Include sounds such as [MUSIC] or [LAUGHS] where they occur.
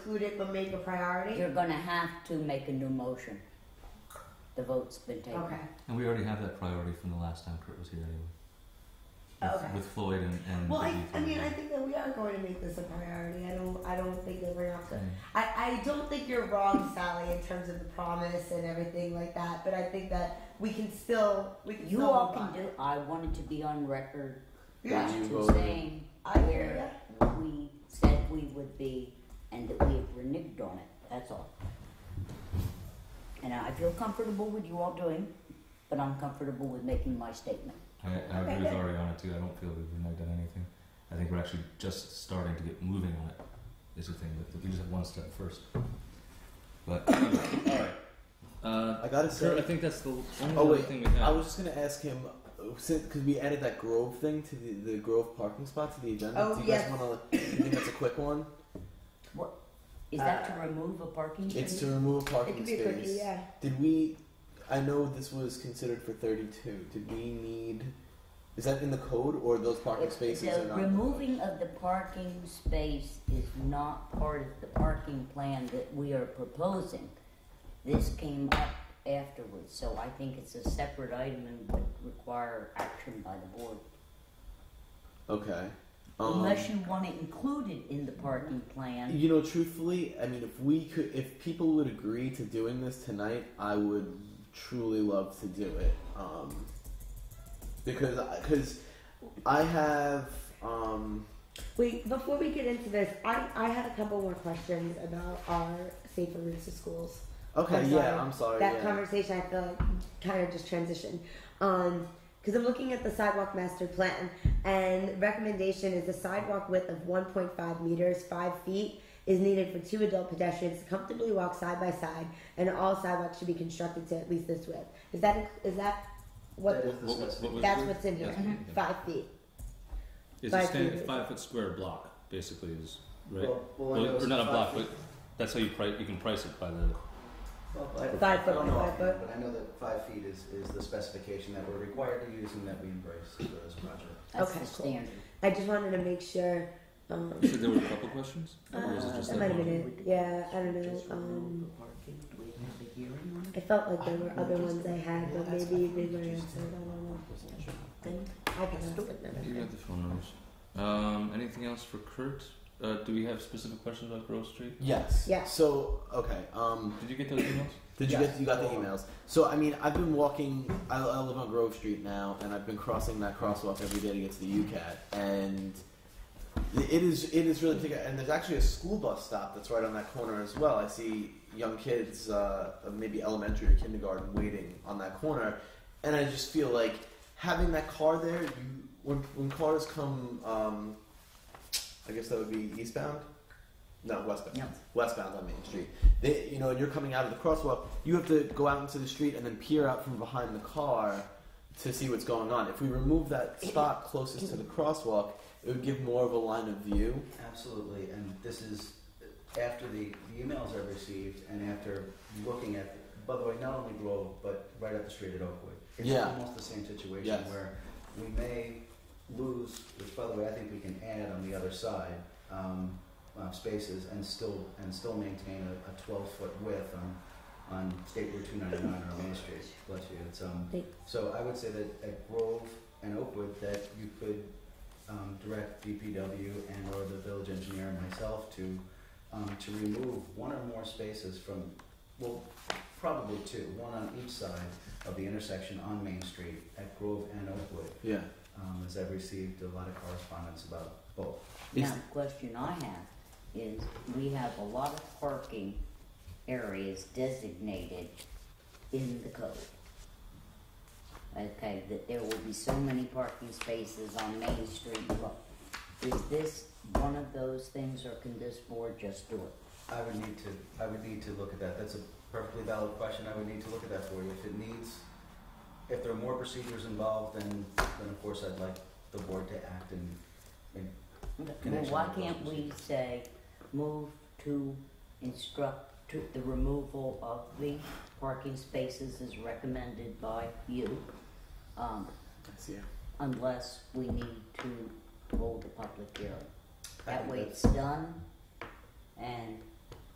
include it but make a priority? You're gonna have to make a new motion. The vote's been taken. Okay, And we already have that priority from the last time Kurt was here anyway. With, Okay. with Floyd and, and well, I, Vicky I from- mean, I think that we are going to make this a priority, I don't, I don't think that we're not Yeah. gonna. I, I don't think you're wrong, Sally, in terms of the promise and everything like that, but I think that we can still, we can You still all move can on. do, I wanted to be on record Yeah, You to voted. saying I hear where we said we would be and that we have reneged on it, that's all. And I feel comfortable with you all doing, but I'm comfortable with making my statement. I, I Okay, agree with good. Ariana too. I don't feel we've reneged on anything. I think we're actually just starting to get moving on it. Is the thing that we just have one step first. But [COUGHS] all right, uh, I Kurt, I gotta uh, say, think that's the only Oh, other wait. thing we have. I was just gonna ask him because we added that Grove thing to the, the Grove parking spot to the agenda. Oh, Do you yes. guys want to? You think that's a [LAUGHS] quick one? Is that Uh, to remove a parking It's space? to remove a it parking could be a space. quickie, yeah. Did we? I know this was considered for thirty-two. Did we need? Is that in the code or those parking If spaces are The not? removing of the parking space is not part of the parking plan that we are proposing. This came up afterwards, so I think it's a separate item and would require action by the board. Okay. Um, Unless you want it included in the parking plan. You know, truthfully, I mean, if we could, if people would agree to doing this tonight, I would truly love to do it. Um, because, because I have, um, Wait, before we get into this, I, I had a couple more questions about our safer routes to schools. okay, I'm sorry. yeah, I'm Oh, sorry. that yeah. conversation, I feel like, kind of just transitioned. Because I'm looking at the sidewalk master plan, and recommendation is a sidewalk width of 1.5 meters, 5 feet, is needed for two adult pedestrians to comfortably walk side by side, and all sidewalks should be constructed to at least this width. Is that is that what? That is What- the what- specific- what was that's it? what's in here. Mm-hmm. Yes, yeah. Five feet. It's Five a stand, feet. five foot square block, basically, is right. Well, well, I Well, know it's or not a five block, feet. but that's how you price. You can price it by the. Well, I- Five foot I don't by know five offhand, foot. But I know that five feet is, is the specification that we're required to use and that we embrace for this project. That's Okay, the cool. standard. I just wanted to make sure. Um, You said there were a couple questions. or was it Uh, just that that might have one? been it. Yeah, I don't know, um, Just remove the parking. Do we have a hearing on it I felt like there were other ones I had, but maybe they were answered. I don't know. then? I can ask it another You time. got the phone numbers. Um, anything else for Kurt? Uh, do we have specific questions about Grove Street? Yes. Yeah. So, okay, um, Did you get those emails? Did you Yes. get you got the emails? So I mean, I've been walking. I, I live on Grove Street now, and I've been crossing that crosswalk every day to get to the UCAT, and it is it is really particular. And there's actually a school bus stop that's right on that corner as well. I see young kids, uh, of maybe elementary or kindergarten, waiting on that corner, and I just feel like having that car there. You when when cars come, um, I guess that would be eastbound. No, westbound No. westbound on Main Street. They, you know, and you're coming out of the crosswalk, you have to go out into the street and then peer out from behind the car to see what's going on. If we remove that spot closest to the crosswalk, it would give more of a line of view. Absolutely, and this is after the, the emails I received and after looking at, by the way, not only Grove, but right up the street at Oakwood. It's Yeah. almost the same situation Yes. where we may lose, which by the way, I think we can add on the other side, um, uh, spaces and still, and still maintain a, a twelve foot width on, on State Route two ninety-nine or Main Street, bless you, it's, um, Thanks. so I would say that at Grove and Oakwood, that you could um, direct DPW and or the village engineer and myself to, um, to remove one or more spaces from, well, probably two, one on each side of the intersection on Main Street at Grove and Oakwood, Yeah. um, as I've received a lot of correspondence about both. Is- Now, the question I have is, we have a lot of parking areas designated in the code. Okay, that there will be so many parking spaces on Main Street, Look, Is this one of those things, or can this board just do it? I would need to, I would need to look at that, that's a perfectly valid question, I would need to look at that for you, if it needs, if there are more procedures involved, then, then of course I'd like the board to act and, and Well, Connection why with can't those. we say, move to instruct to the removal of the parking spaces as recommended by you? Um, I see. unless we need to hold a public hearing. I That think way that's- it's done, and